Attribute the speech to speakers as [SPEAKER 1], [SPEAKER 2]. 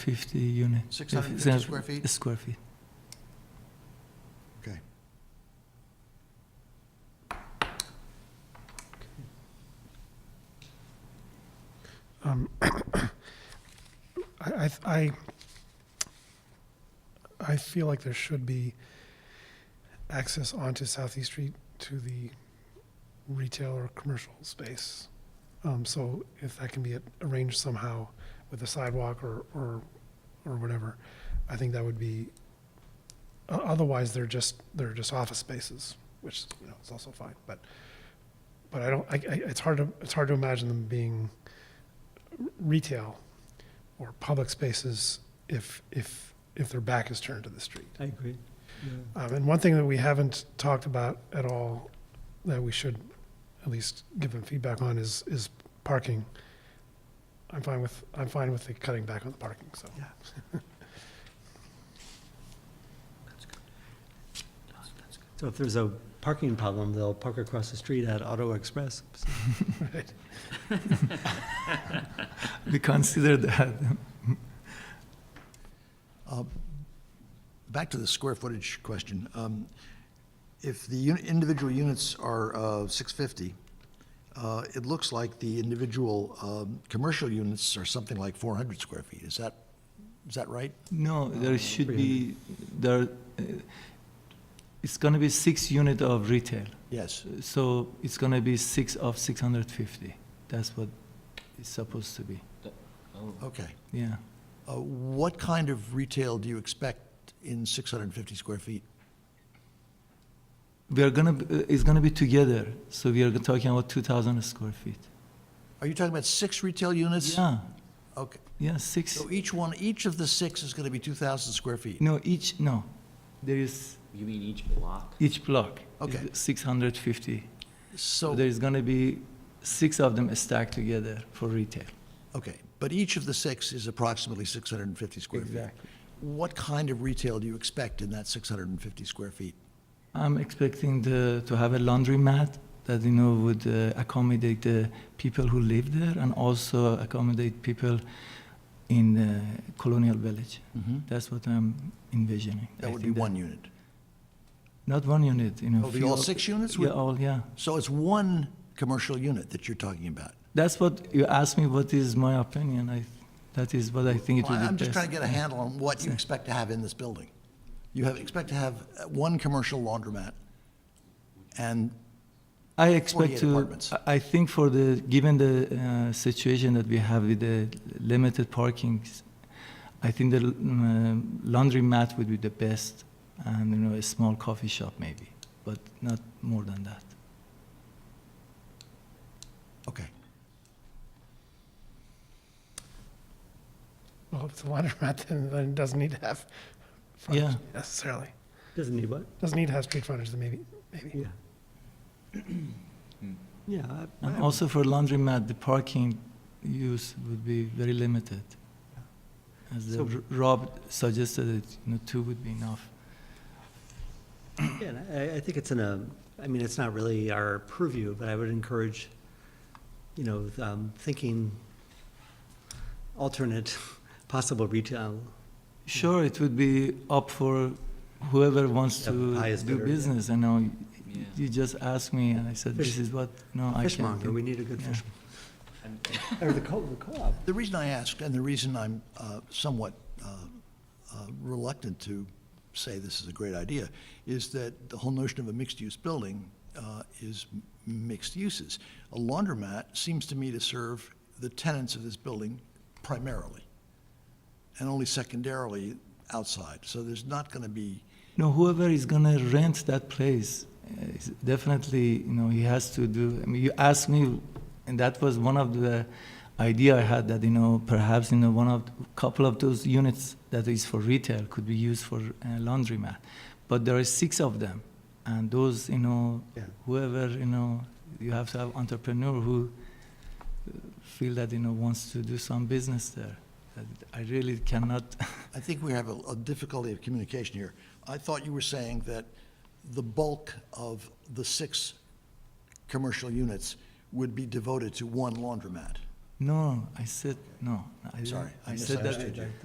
[SPEAKER 1] 50 unit.
[SPEAKER 2] 650 square feet?
[SPEAKER 1] Square feet.
[SPEAKER 3] Um, I, I th- I, I feel like there should be access onto Southeast Street to the retail or commercial space. Um, so if that can be a- arranged somehow with a sidewalk or, or, or whatever, I think that would be, o- otherwise they're just, they're just office spaces, which, you know, is also fine, but, but I don't, I, I, it's hard to, it's hard to imagine them being retail or public spaces if, if, if their back is turned to the street.
[SPEAKER 4] I agree.
[SPEAKER 3] Um, and one thing that we haven't talked about at all that we should at least give them feedback on is, is parking. I'm fine with, I'm fine with the cutting back on the parking, so.
[SPEAKER 2] Yeah.
[SPEAKER 4] So if there's a parking problem, they'll park across the street at Auto Express. So
[SPEAKER 3] Right.
[SPEAKER 1] We consider that.
[SPEAKER 2] Uh, Back to the square footage question. Um, If the uni- individual units are uh, 650, uh, it looks like the individual um, commercial units are something like 400 square feet. Is that, is that right?
[SPEAKER 1] No, there
[SPEAKER 5] Oh,
[SPEAKER 1] should be, there, uh, it's going to be six unit of retail.
[SPEAKER 2] Yes.
[SPEAKER 1] So it's going to be six of 650. That's what it's supposed to be.
[SPEAKER 2] Okay.
[SPEAKER 1] Yeah.
[SPEAKER 2] Uh, What kind of retail do you expect in 650 square feet?
[SPEAKER 1] We are going to, it's going to be together. So we are talking about 2,000 square feet.
[SPEAKER 2] Are you talking about six retail units?
[SPEAKER 1] Yeah,
[SPEAKER 2] Okay.
[SPEAKER 1] yeah, six.
[SPEAKER 2] So e- each one, each of the six is going to be 2,000 square feet?
[SPEAKER 1] No, each, no. There is
[SPEAKER 5] You mean each block?
[SPEAKER 1] each block. is
[SPEAKER 2] Okay.
[SPEAKER 1] 650. So
[SPEAKER 2] So,
[SPEAKER 1] there's going to be six of them stacked together for retail.
[SPEAKER 2] okay, but each of the six is approximately 650 square feet? What kind of retail do you expect in that 650 square feet?
[SPEAKER 1] I'm expecting the, to have a laundromat that you know would uh, accommodate the people who live there and also accommodate people in the colonial village. That's what I'm envisioning. Mm-hmm. I
[SPEAKER 2] That would be
[SPEAKER 1] think
[SPEAKER 2] one unit.
[SPEAKER 1] Not one unit, you know.
[SPEAKER 2] It would be
[SPEAKER 1] few
[SPEAKER 2] all
[SPEAKER 1] of-
[SPEAKER 2] six units?
[SPEAKER 1] Yeah, all yeah.
[SPEAKER 2] So it's one commercial unit that you're talking about?
[SPEAKER 1] That's what you asked me. What is my opinion? I, that is what I think it would be
[SPEAKER 2] I'm just
[SPEAKER 1] best.
[SPEAKER 2] trying to get a handle on what you expect to have in this building. You have, expect to have uh, one commercial laundromat and
[SPEAKER 1] I expect
[SPEAKER 2] 48
[SPEAKER 1] to.
[SPEAKER 2] apartments.
[SPEAKER 1] I- I think for the given the uh, situation that we have with the limited parking, I think the l- um, laundromat would be the best, and you know a small coffee shop maybe, but not more than that.
[SPEAKER 2] Okay.
[SPEAKER 3] Well, if it's a laundromat, then, then it doesn't need to have frontage necessarily.
[SPEAKER 4] Doesn't need what?
[SPEAKER 3] Doesn't need to have street frontage, then maybe, maybe.
[SPEAKER 4] Yeah. Yeah. I-
[SPEAKER 1] And
[SPEAKER 4] I-
[SPEAKER 1] also for laundromat, the parking use would be very limited. As the,
[SPEAKER 4] So-
[SPEAKER 1] R- Rob suggested, that, you know, two would be enough.
[SPEAKER 4] Yeah, and I, I think it's in a, I mean, it's not really our purview, but I would encourage, you know, um, thinking alternate possible retail.
[SPEAKER 1] Sure, it would be up for whoever wants
[SPEAKER 4] Yeah,
[SPEAKER 1] to
[SPEAKER 4] highest
[SPEAKER 1] do
[SPEAKER 4] bidder, yeah.
[SPEAKER 1] business. I know
[SPEAKER 5] Yeah.
[SPEAKER 1] you just asked me, and I said, this is what no I can
[SPEAKER 4] Fishmonger, we
[SPEAKER 1] do.
[SPEAKER 4] need a good
[SPEAKER 1] Yeah.
[SPEAKER 4] fish. Or the co, the co-op.
[SPEAKER 2] The reason I ask, and the reason I'm uh, somewhat uh, uh, reluctant to say this is a great idea, is that the whole notion of a mixed-use building uh, is m- mixed uses. A laundromat seems to me to serve the tenants of this building primarily, and only secondarily outside. So there's not going to be,
[SPEAKER 1] No, whoever is gonna rent that place, uh, is definitely, you know, he has to do. I mean, you asked me, and that was one of the idea I had that you know perhaps you know one of couple of those units that is for retail could be used for uh, laundromat, but there are six of them, and those you know
[SPEAKER 4] Yeah.
[SPEAKER 1] whoever you know you have to have entrepreneur who uh, feel that you know wants to do some business there That i really cannot
[SPEAKER 2] I think we have a a difficulty of communication here. I thought you were saying that the bulk of the six commercial units would be devoted to one laundromat.
[SPEAKER 1] no i said no I didn't.
[SPEAKER 2] Sorry, I
[SPEAKER 1] i said that
[SPEAKER 2] misunderstood you.